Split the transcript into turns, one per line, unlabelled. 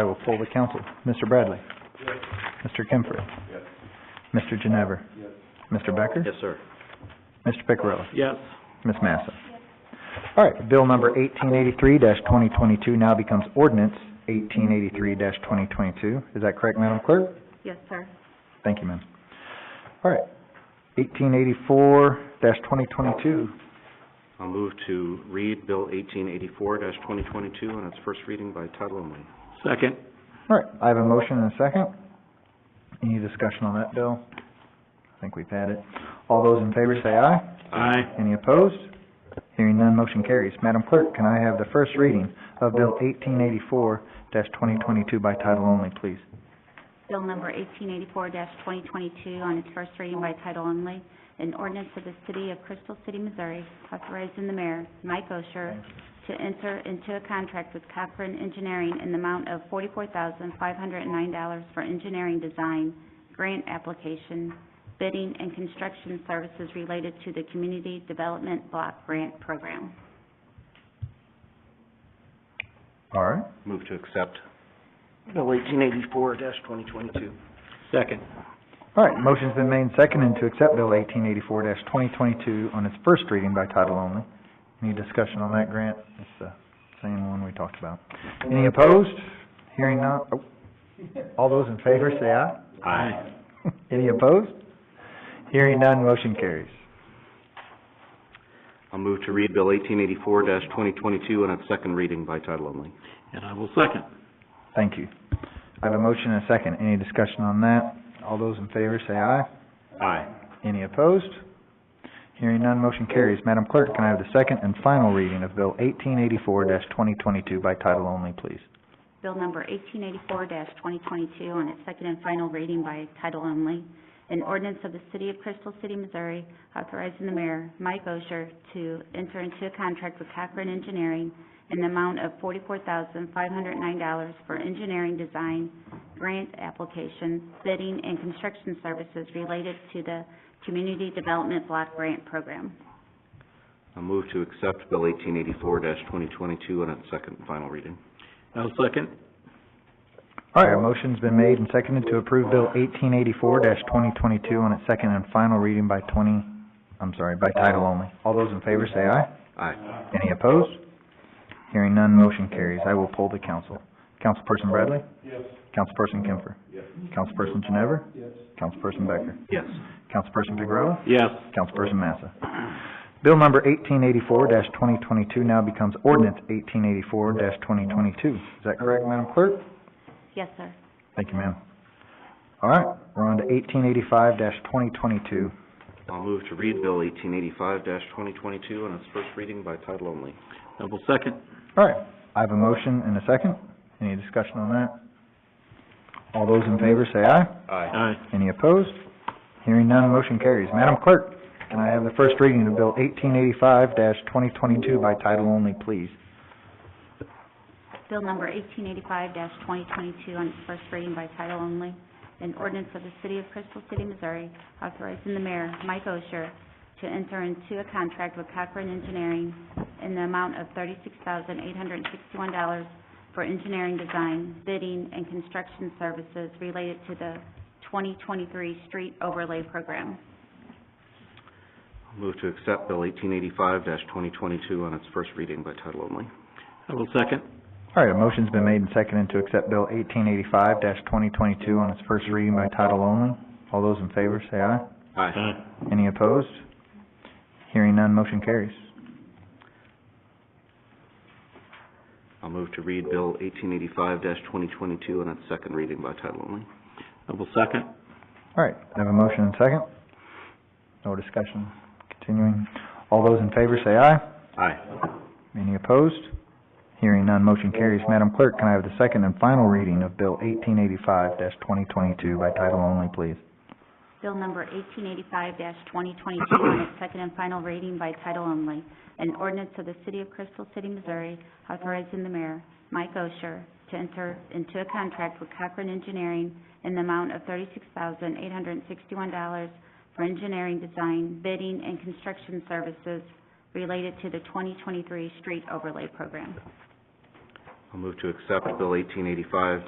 I will poll the council. Mr. Bradley? Mr. Kemfer? Mr. Ginever? Mr. Becker?
Yes, sir.
Mr. Picarella?
Yes.
Ms. Massa? All right, bill number eighteen eighty-three twenty twenty-two now becomes ordinance eighteen eighty-three twenty twenty-two. Is that correct, Madam Clerk?
Yes, sir.
Thank you, ma'am. All right, eighteen eighty-four twenty twenty-two.
I'll move to read Bill eighteen eighty-four twenty twenty-two on its first reading by title only. Second.
All right, I have a motion and a second. Any discussion on that bill? I think we've had it. All those in favor say aye.
Aye.
Any opposed? Hearing none, motion carries. Madam Clerk, can I have the first reading of Bill eighteen eighty-four twenty twenty-two by title only, please?
Bill number eighteen eighty-four twenty twenty-two on its first reading by title only, an ordinance of the city of Crystal City, Missouri, authorizing the mayor, Mike Osher, to enter into a contract with Cochran Engineering in the amount of forty-four thousand five hundred and nine dollars for engineering design, grant application, bidding, and construction services related to the Community Development Block Grant Program.
All right,
Move to accept.
Bill eighteen eighty-four twenty twenty-two.
Second.
all right, motion's been made and seconded to accept Bill eighteen eighty-four twenty twenty-two on its first reading by title only. Any discussion on that, Grant? It's the same one we talked about. Any opposed? Hearing none, oh, all those in favor say aye.
Aye.
Any opposed? Hearing none, motion carries.
I'll move to read Bill eighteen eighty-four twenty twenty-two on its second reading by title only.
And I will second.
Thank you. I have a motion and a second. Any discussion on that? All those in favor say aye.
Aye.
Any opposed? Hearing none, motion carries. Madam Clerk, can I have the second and final reading of Bill eighteen eighty-four twenty twenty-two by title only, please?
Bill number eighteen eighty-four twenty twenty-two on its second and final reading by title only. An ordinance of the city of Crystal City, Missouri, authorizing the mayor, Mike Osher, to enter into a contract with Cochran Engineering in the amount of forty-four thousand five hundred nine dollars for engineering design, grant application, bidding, and construction services related to the Community Development Block Grant Program.
I'll move to accept Bill eighteen eighty-four twenty twenty-two on its second and final reading.
I'll second.
All right, a motion's been made and seconded to approve Bill eighteen eighty-four twenty twenty-two on its second and final reading by twenty, I'm sorry, by title only. All those in favor say aye.
Aye.
Any opposed? Hearing none, motion carries. I will poll the council. Councilperson Bradley? Yes. Councilperson Kemfer? Yes. Councilperson Ginever? Yes. Councilperson Becker?
Yes.
Councilperson Picarella?
Yes.
Councilperson Massa? Bill number eighteen eighty-four twenty twenty-two now becomes ordinance eighteen eighty-four twenty twenty-two. Is that correct, Madam Clerk?
Yes, sir.
Thank you, ma'am. All right, we're on to eighteen eighty-five twenty twenty-two.
I'll move to read Bill eighteen eighty-five twenty twenty-two on its first reading by title only.
I will second.
All right, I have a motion and a second. Any discussion on that? All those in favor say aye.
Aye.
Aye.
Any opposed? Hearing none, motion carries. Madam Clerk, can I have the first reading of Bill eighteen eighty-five twenty twenty-two by title only, please?
Bill number eighteen eighty-five twenty twenty-two on its first reading by title only, an ordinance of the city of Crystal City, Missouri, authorizing the mayor, Mike Osher, to enter into a contract with Cochran Engineering in the amount of thirty-six thousand eight hundred and sixty-one dollars for engineering design, bidding, and construction services related to the twenty twenty-three street overlay program.
I'll move to accept Bill eighteen eighty-five twenty twenty-two on its first reading by title only.
I will second.
All right, a motion's been made and seconded to accept Bill eighteen eighty-five twenty twenty-two on its first reading by title only. All those in favor say aye.
Aye.
Any opposed? Hearing none, motion carries.
I'll move to read Bill eighteen eighty-five twenty twenty-two on its second reading by title only.
I will second.
All right, I have a motion and second. No discussion, continuing. All those in favor say aye.
Aye.
Any opposed? Hearing none, motion carries. Madam Clerk, can I have the second and final reading of Bill eighteen eighty-five twenty twenty-two by title only, please?
Bill number eighteen eighty-five twenty twenty-two on its second and final reading by title only. An ordinance of the city of Crystal City, Missouri, authorizing the mayor, Mike Osher, to enter into a contract with Cochran Engineering in the amount of thirty-six thousand eight hundred and sixty-one dollars for engineering design, bidding, and construction services related to the twenty twenty-three street overlay program.
I'll move to accept Bill eighteen eighty-five